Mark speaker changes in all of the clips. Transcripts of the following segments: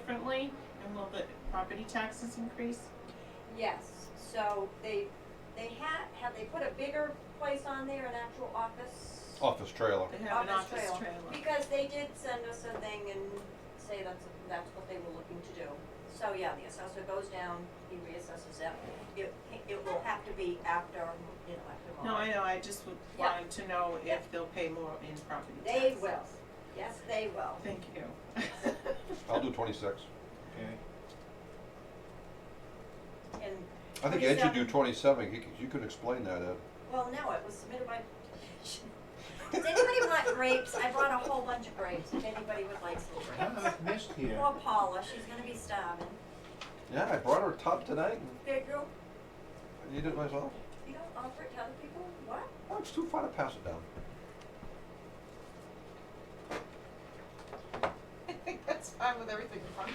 Speaker 1: differently, and will the property taxes increase?
Speaker 2: Yes, so they, they had, have they put a bigger place on there, an actual office?
Speaker 3: Office trailer.
Speaker 1: They have an
Speaker 2: Office
Speaker 1: office
Speaker 2: trail.
Speaker 1: trailer.
Speaker 2: Because they did send us a thing and say that's, that's what they were looking to do. So, yeah, the assessor goes down, he reassesses it, it, it will have to be after, you know, after.
Speaker 1: No, I
Speaker 2: March.
Speaker 1: know, I just would
Speaker 2: Yeah.
Speaker 1: want to know
Speaker 2: Yeah.
Speaker 1: if they'll pay more in property taxes.
Speaker 2: They will, yes, they will.
Speaker 1: Thank you.
Speaker 3: I'll do twenty-six.
Speaker 4: Okay,
Speaker 2: And,
Speaker 3: I think Ed should do
Speaker 2: 27.
Speaker 3: twenty-seven. You could, you could explain that, Ed.
Speaker 2: well, no, it was submitted by. Does anybody want grapes? I brought a whole bunch of grapes, if anybody would like some
Speaker 4: I
Speaker 2: grapes.
Speaker 4: have a missed here.
Speaker 2: Poor Paula, she's gonna be starving.
Speaker 3: Yeah, I brought her a tub tonight
Speaker 2: Big girl,
Speaker 3: and eat it myself.
Speaker 2: you don't offer it to other people? What?
Speaker 3: Oh, it's too far to pass it down.
Speaker 5: I think that's fine with everything in front.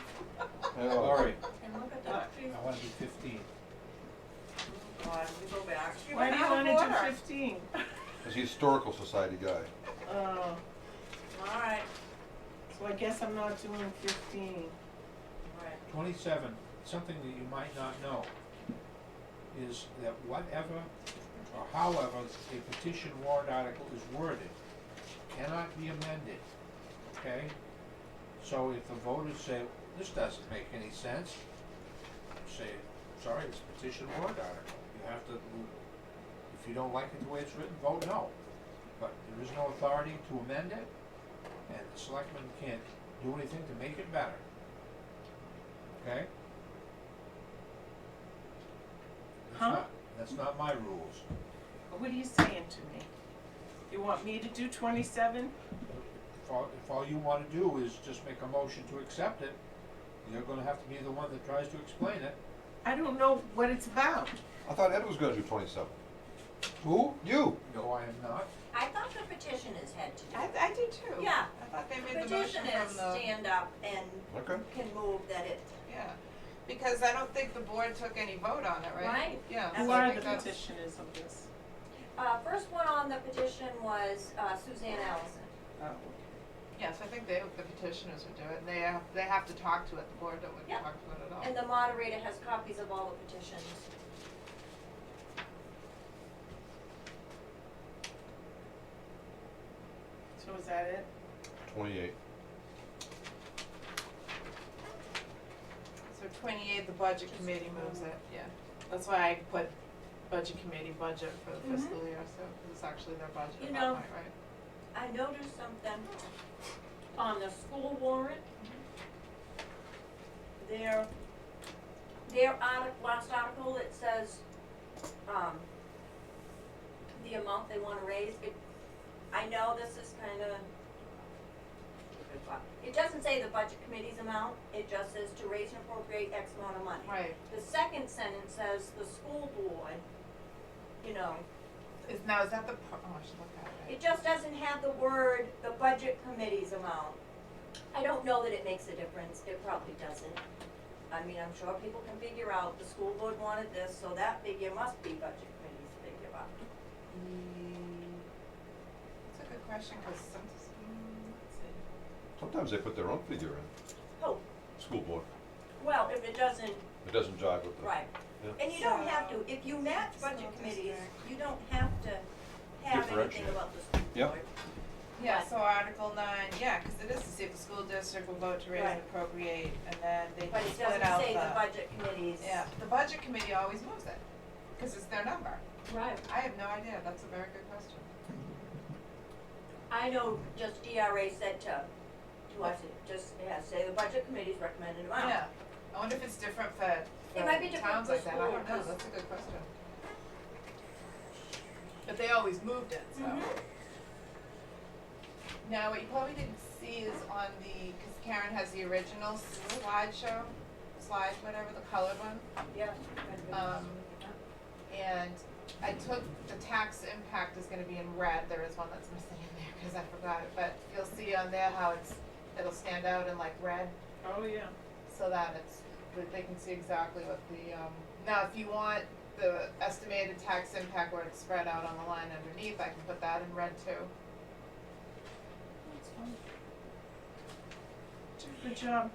Speaker 3: Yeah, well,
Speaker 4: All right,
Speaker 2: And look at that tree.
Speaker 4: I want to do fifteen.
Speaker 2: Oh, God, we go back.
Speaker 1: Why do you
Speaker 5: out of
Speaker 1: wanna do
Speaker 5: order.
Speaker 1: fifteen?
Speaker 3: He's a historical society guy.
Speaker 1: Oh,
Speaker 2: All right,
Speaker 1: so I guess I'm not doing fifteen.
Speaker 2: all right.
Speaker 4: Twenty-seven, something that you might not know is that whatever or however a petition warrant article is worded cannot be amended, okay? So if the voters say, this doesn't make any sense, you say, sorry, it's a petition warrant article. You have to, if you don't like it the way it's written, vote no. But there is no authority to amend it, and the selectmen can't do anything to make it better. Okay? That's
Speaker 1: Huh?
Speaker 4: not- That's not my rules.
Speaker 1: What are you saying to me? You want me to do twenty-seven?
Speaker 4: If all, if all you wanna do is just make a motion to accept it, you're gonna have to be the one that tries to explain it.
Speaker 1: I don't know what it's about.
Speaker 3: I thought Ed was gonna do twenty-seven.
Speaker 4: Who?
Speaker 3: You?
Speaker 4: No, I am not.
Speaker 2: I thought the petitioners had to do
Speaker 5: I,
Speaker 2: it.
Speaker 5: I do too.
Speaker 2: Yeah.
Speaker 5: I thought they made the motion
Speaker 2: Petitioners
Speaker 5: from the,
Speaker 2: stand up and
Speaker 3: Okay.
Speaker 2: can move that it,
Speaker 5: yeah, because I don't think the board took any vote on it, right?
Speaker 2: Right.
Speaker 5: Yeah.
Speaker 1: Who
Speaker 5: so I
Speaker 1: are
Speaker 5: think
Speaker 1: the
Speaker 5: that's-
Speaker 1: petitioners of this?
Speaker 2: uh, first one on the petition was uh, Suzanne Allison.
Speaker 1: Oh, okay.
Speaker 5: Yes, I think they, the petitioners would do it, and they have, they have to talk to it, the board don't
Speaker 2: Yeah.
Speaker 5: wouldn't talk to it at all.
Speaker 2: And the moderator has copies of all the petitions.
Speaker 1: so is that it?
Speaker 3: Twenty-eight.
Speaker 5: So twenty-eight, the budget committee moves it, yeah. That's why I put budget committee budget for the fiscal year, so it's actually their budget
Speaker 2: Mm-hmm. You
Speaker 5: at
Speaker 2: know.
Speaker 5: that point, right?
Speaker 2: I noticed something on the school warrant. Their, their artic, last article, it says, um, the amount they wanna raise, it, I know this is kinda stupid, but it doesn't say the budget committee's amount, it just says to raise and appropriate X amount of money.
Speaker 5: Right,
Speaker 2: The second sentence says the school board, you know,
Speaker 5: is, now, is that the, par- oh, I should look at it.
Speaker 2: it just doesn't have the word, the budget committee's amount. I don't know that it makes a difference, it probably doesn't. I mean, I'm sure people can figure out, the school board wanted this, so that figure must be budget committee's figure up.
Speaker 5: That's a good question, cause sometimes, mm, let's see.
Speaker 3: Sometimes they put their own figure in.
Speaker 2: Oh,
Speaker 3: School board.
Speaker 2: well, if it doesn't,
Speaker 3: It doesn't jive with the.
Speaker 2: right.
Speaker 3: Yeah.
Speaker 2: And you don't have to, if you match budget
Speaker 5: School
Speaker 2: committees,
Speaker 5: district.
Speaker 2: you don't have to have anything
Speaker 3: Differentiate.
Speaker 2: about the school board.
Speaker 3: Yep.
Speaker 5: Yeah,
Speaker 2: Right.
Speaker 5: so Article nine, yeah, cause it is to see if the school district will vote to raise and
Speaker 2: Right.
Speaker 5: appropriate, and then they
Speaker 2: But it
Speaker 5: split
Speaker 2: doesn't
Speaker 5: out
Speaker 2: say the
Speaker 5: the,
Speaker 2: budget committees.
Speaker 5: yeah, the budget committee always moves it, cause it's their number.
Speaker 2: Right.
Speaker 5: I have no idea, that's a very good question.
Speaker 2: I know just DRA said to, to us, it just, it has, to say the budget committee's recommended amount.
Speaker 5: Yeah, I wonder if it's different for,
Speaker 2: Oh. It might be
Speaker 5: for
Speaker 2: different
Speaker 5: towns
Speaker 2: for
Speaker 5: like that, I
Speaker 2: school,
Speaker 5: don't know,
Speaker 2: 'cause-
Speaker 5: that's a good question. But they always moved it, so.
Speaker 2: Mhm.
Speaker 5: Now, what you probably didn't see is on the, cause Karen has the original slideshow, slide, whatever, the colored one.
Speaker 2: Yeah.
Speaker 5: Um, and I took, the tax impact is gonna be in red, there is one that's missing in there, cause I forgot it, but you'll see on there how it's, it'll stand out in like red,
Speaker 1: Oh, yeah.
Speaker 5: so that it's, that they can see exactly what the, um, now, if you want the estimated tax impact where it's spread out on the line underneath, I can put that in red too.
Speaker 1: That's fine. Did a good job.